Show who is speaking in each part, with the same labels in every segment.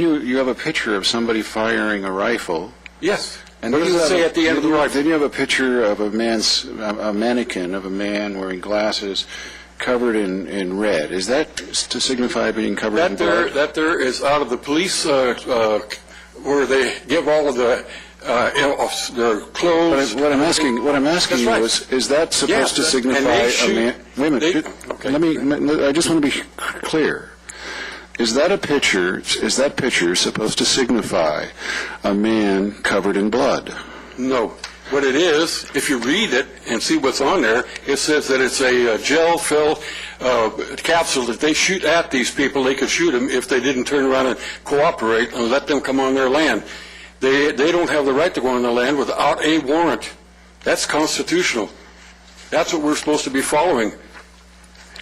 Speaker 1: You, you have a picture of somebody firing a rifle.
Speaker 2: Yes.
Speaker 1: And
Speaker 2: What
Speaker 1: then
Speaker 2: does
Speaker 1: you
Speaker 2: it
Speaker 1: have
Speaker 2: say
Speaker 1: a-
Speaker 2: at the end of the
Speaker 1: you-
Speaker 2: rifle?
Speaker 1: Then you have a picture of a man's, a a mannequin of a man wearing glasses covered in, in red. Is that s- to signify being covered in
Speaker 2: That there,
Speaker 1: blood?
Speaker 2: that there is out of the police, uh, uh, where they give all of the, uh, you know, their
Speaker 1: What
Speaker 2: clothes.
Speaker 1: I'm- What I'm asking, what I'm asking you
Speaker 2: That's right.
Speaker 1: is, is that supposed to
Speaker 2: that- and
Speaker 1: signify
Speaker 2: they
Speaker 1: a
Speaker 2: shoot-
Speaker 1: man? Wait a minute,
Speaker 2: they-
Speaker 1: ju-
Speaker 2: okay.
Speaker 1: let me, m- I just want to be c- clear. Is that a picture, is that picture supposed to signify a man covered in blood?
Speaker 2: No. What it is, if you read it and see what's on there, it says that it's a uh, gel-filled uh, capsule that they shoot at these people. They could shoot them if they didn't turn around and cooperate and let them come on their land. They, they don't have the right to go on their land without a warrant. That's constitutional. That's what we're supposed to be following.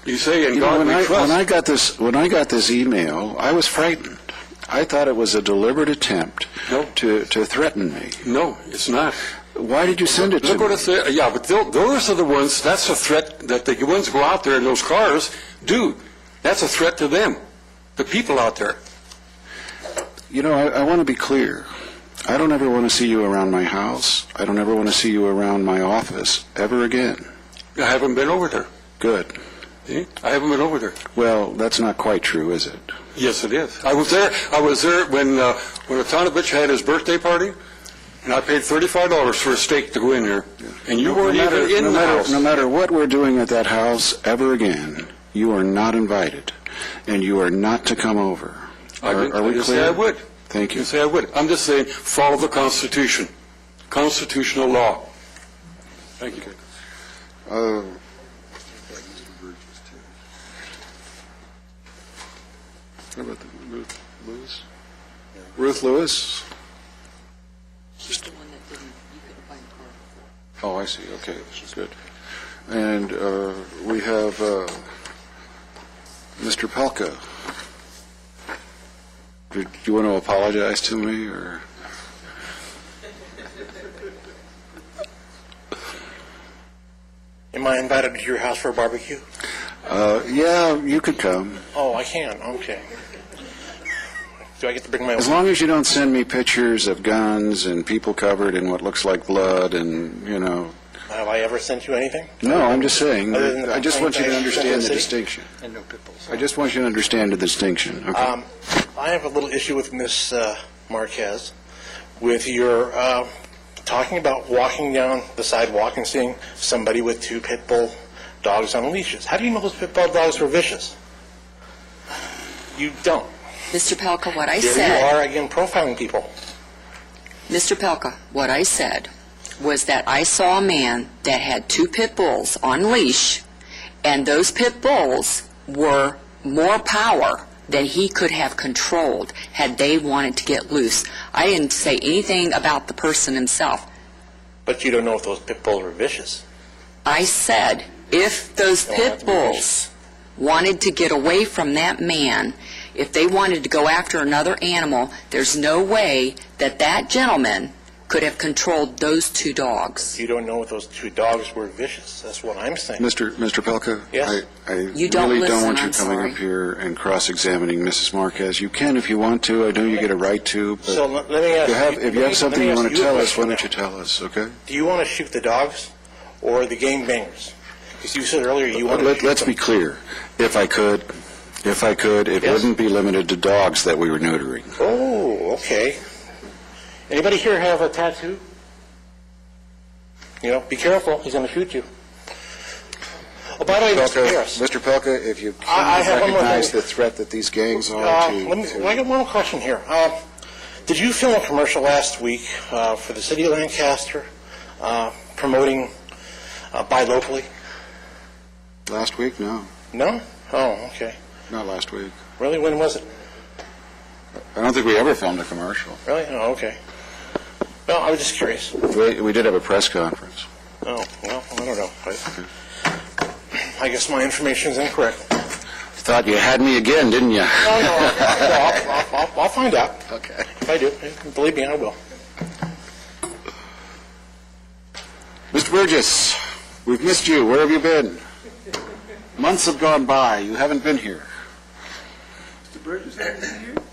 Speaker 2: You say, in
Speaker 1: You know,
Speaker 2: God
Speaker 1: when I,
Speaker 2: we
Speaker 1: when I
Speaker 2: trust.
Speaker 1: got this when I got this email, I was frightened. I thought it was a deliberate attempt
Speaker 2: No.
Speaker 1: to, to threaten me.
Speaker 2: No, it's not.
Speaker 1: Why did you send it
Speaker 2: Look
Speaker 1: to
Speaker 2: what
Speaker 1: me?
Speaker 2: it said, yeah, but tho- those are the ones, that's a threat that the ones who go out there in those cars do. That's a threat to them, the people out there.
Speaker 1: You know, I, I want to be clear. I don't ever want to see you around my house. I don't ever want to see you around my office ever again.
Speaker 2: I haven't been over there.
Speaker 1: Good.
Speaker 2: See? I haven't been over there.
Speaker 1: Well, that's not quite true, is it?
Speaker 2: Yes, it is. I was there, I was there when, uh, when Otanovich had his birthday party, and I paid thirty-five dollars for a steak to go in there, and you weren't
Speaker 1: no matter,
Speaker 2: even
Speaker 1: no
Speaker 2: in the
Speaker 1: matter,
Speaker 2: house.
Speaker 1: No matter what we're doing at that house ever again, you are not invited, and you are not to come over.
Speaker 2: I
Speaker 1: are,
Speaker 2: didn't-
Speaker 1: are
Speaker 2: I
Speaker 1: we
Speaker 2: didn't say
Speaker 1: clear?
Speaker 2: I would.
Speaker 1: Thank you.
Speaker 2: You say I would. I'm just saying, follow the Constitution, constitutional law. Thank you.
Speaker 1: Uh, How about the Ruth Lewis? Ruth Lewis?
Speaker 3: She's the one that didn't, you couldn't find the car before.
Speaker 1: Oh, I see, okay, she's good. And uh, we have uh, Mr. Palka. Do do you want to apologize to me, or?
Speaker 4: Am I invited to your house for a barbecue?
Speaker 1: Uh, Yeah, you could come,
Speaker 4: Oh, I can. Okay. Do I get to bring my
Speaker 1: as long as you don't send me pictures of guns and people covered in what looks like blood and, you know,
Speaker 4: Have I ever sent you anything?
Speaker 1: No, I'm just saying,
Speaker 4: Other than the
Speaker 1: I just want you to
Speaker 4: complaint that I-
Speaker 1: understand the
Speaker 4: City?
Speaker 1: distinction.
Speaker 4: And no pit bulls.
Speaker 1: I just want you to understand the distinction, okay?
Speaker 4: Um, I have a little issue with Miss uh, Marquez with your uh, talking about walking down the sidewalk and seeing somebody with two pit bull dogs on leashes. How do you know those pit bull dogs were vicious? You don't.
Speaker 3: Mr. Palka, what I
Speaker 4: Here
Speaker 3: said,
Speaker 4: you are again profiling people.
Speaker 3: Mr. Palka, what I said was that I saw a man that had two pit bulls on leash, and those pit bulls were more power than he could have controlled had they wanted to get loose. I didn't say anything about the person himself.
Speaker 4: But you don't know if those pit bulls were vicious.
Speaker 3: I said, if those
Speaker 4: Don't have
Speaker 3: pit
Speaker 4: to be
Speaker 3: bulls wanted to get away from that man, if they wanted to go after another animal, there's no way that that gentleman could have controlled those two dogs.
Speaker 4: You don't know if those two dogs were vicious. That's what I'm saying.
Speaker 1: Mr. Mr. Pelka?
Speaker 4: Yes.
Speaker 1: I, I really
Speaker 3: You don't
Speaker 1: don't
Speaker 3: listen,
Speaker 1: want you
Speaker 3: I'm
Speaker 1: coming
Speaker 3: sorry.
Speaker 1: up here and cross-examining Mrs. Marquez. You can if you want to, I know you get a right to, but
Speaker 4: So let let me
Speaker 1: if
Speaker 4: ask.
Speaker 1: you have,
Speaker 4: you-
Speaker 1: if
Speaker 4: let
Speaker 1: you
Speaker 4: me-
Speaker 1: have
Speaker 4: let
Speaker 1: something
Speaker 4: me
Speaker 1: you
Speaker 4: ask
Speaker 1: want to
Speaker 4: a
Speaker 1: tell us, why
Speaker 4: question
Speaker 1: don't you
Speaker 4: now.
Speaker 1: tell us, okay?
Speaker 4: Do you want to shoot the dogs or the gang bangers? Because you said earlier you want to
Speaker 1: Uh, Let-
Speaker 4: shoot
Speaker 1: Let's
Speaker 4: them.
Speaker 1: be clear, if I could, if I could, it
Speaker 4: Yes.
Speaker 1: wouldn't be limited to dogs that we were neutering.
Speaker 4: Oh, okay. Anybody here have a tattoo? You know, be careful, he's going to shoot you. Oh, by the way, Mr. Harris.
Speaker 1: Mr. Pelka, if you
Speaker 4: I- I
Speaker 1: can
Speaker 4: have one more
Speaker 1: recognize
Speaker 4: thing.
Speaker 1: the threat that these gangs are
Speaker 4: Uh,
Speaker 1: to...
Speaker 4: Let me,
Speaker 1: to-
Speaker 4: well, I got one question here. Uh, Did you film a commercial last week uh, for the city of Lancaster uh, promoting uh, buy locally?
Speaker 1: Last week? No,
Speaker 4: No? Oh, okay.
Speaker 1: not last week.
Speaker 4: Really, when was it?
Speaker 1: I don't think we ever filmed a commercial.
Speaker 4: Really? Oh, okay. Well, I was just curious.
Speaker 1: We, we did have a press conference.
Speaker 4: Oh, well, I don't know. I- I guess my information is incorrect.
Speaker 1: Thought you had me again, didn't you?
Speaker 4: No, no, I'll, I'll- I'll, I'll find out.
Speaker 1: Okay.
Speaker 4: If I do, believe me, I will.
Speaker 1: Mr. Burgess, we've missed you. Where have you been? Months have gone by. You haven't been here.
Speaker 5: Mr. Burgess, are you here?